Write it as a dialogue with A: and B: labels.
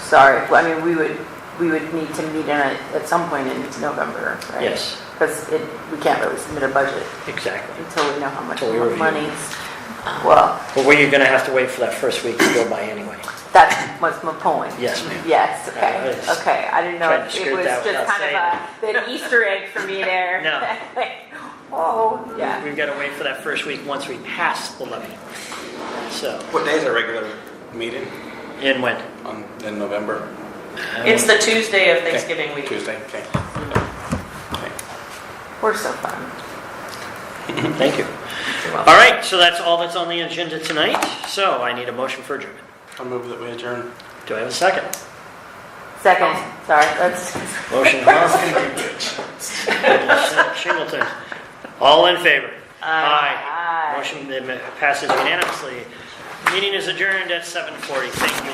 A: sorry, I mean, we would, we would need to meet in, it at some point in November, right?
B: Yes,
A: Because it, we can't really submit a budget
B: exactly.
A: until we know how much
B: Until we review.
A: money's, well,
B: But we're going to have to wait for that first week to go by anyway.
A: that was my point.
B: Yes, ma'am.
A: Yes,
B: I
A: okay,
B: was
A: okay, I didn't know,
B: trying to
A: if it
B: skirt
A: was
B: that
A: just
B: without
A: kind of a, an Easter egg for me there.
B: No.
A: Oh, yeah,
B: We've got to wait for that first week once we pass the levy. So,
C: What day is our regular meeting
B: and when?
C: on, in November?
D: It's the Tuesday of
C: Okay.
D: Thanksgiving week.
C: Tuesday, okay. Okay.
A: we're so fun.
B: Thank you. All right, so that's all that's on the agenda tonight. So I need a motion for adjournment.
C: I'll move that we adjourn.
B: Do I have a second?
A: Second, sorry, that's,
B: Motion Hoffman. Singleton. All in favor? Aye. uh,
A: Aye.
B: Motion passes unanimously. Meeting is adjourned at 7:40. Thank you.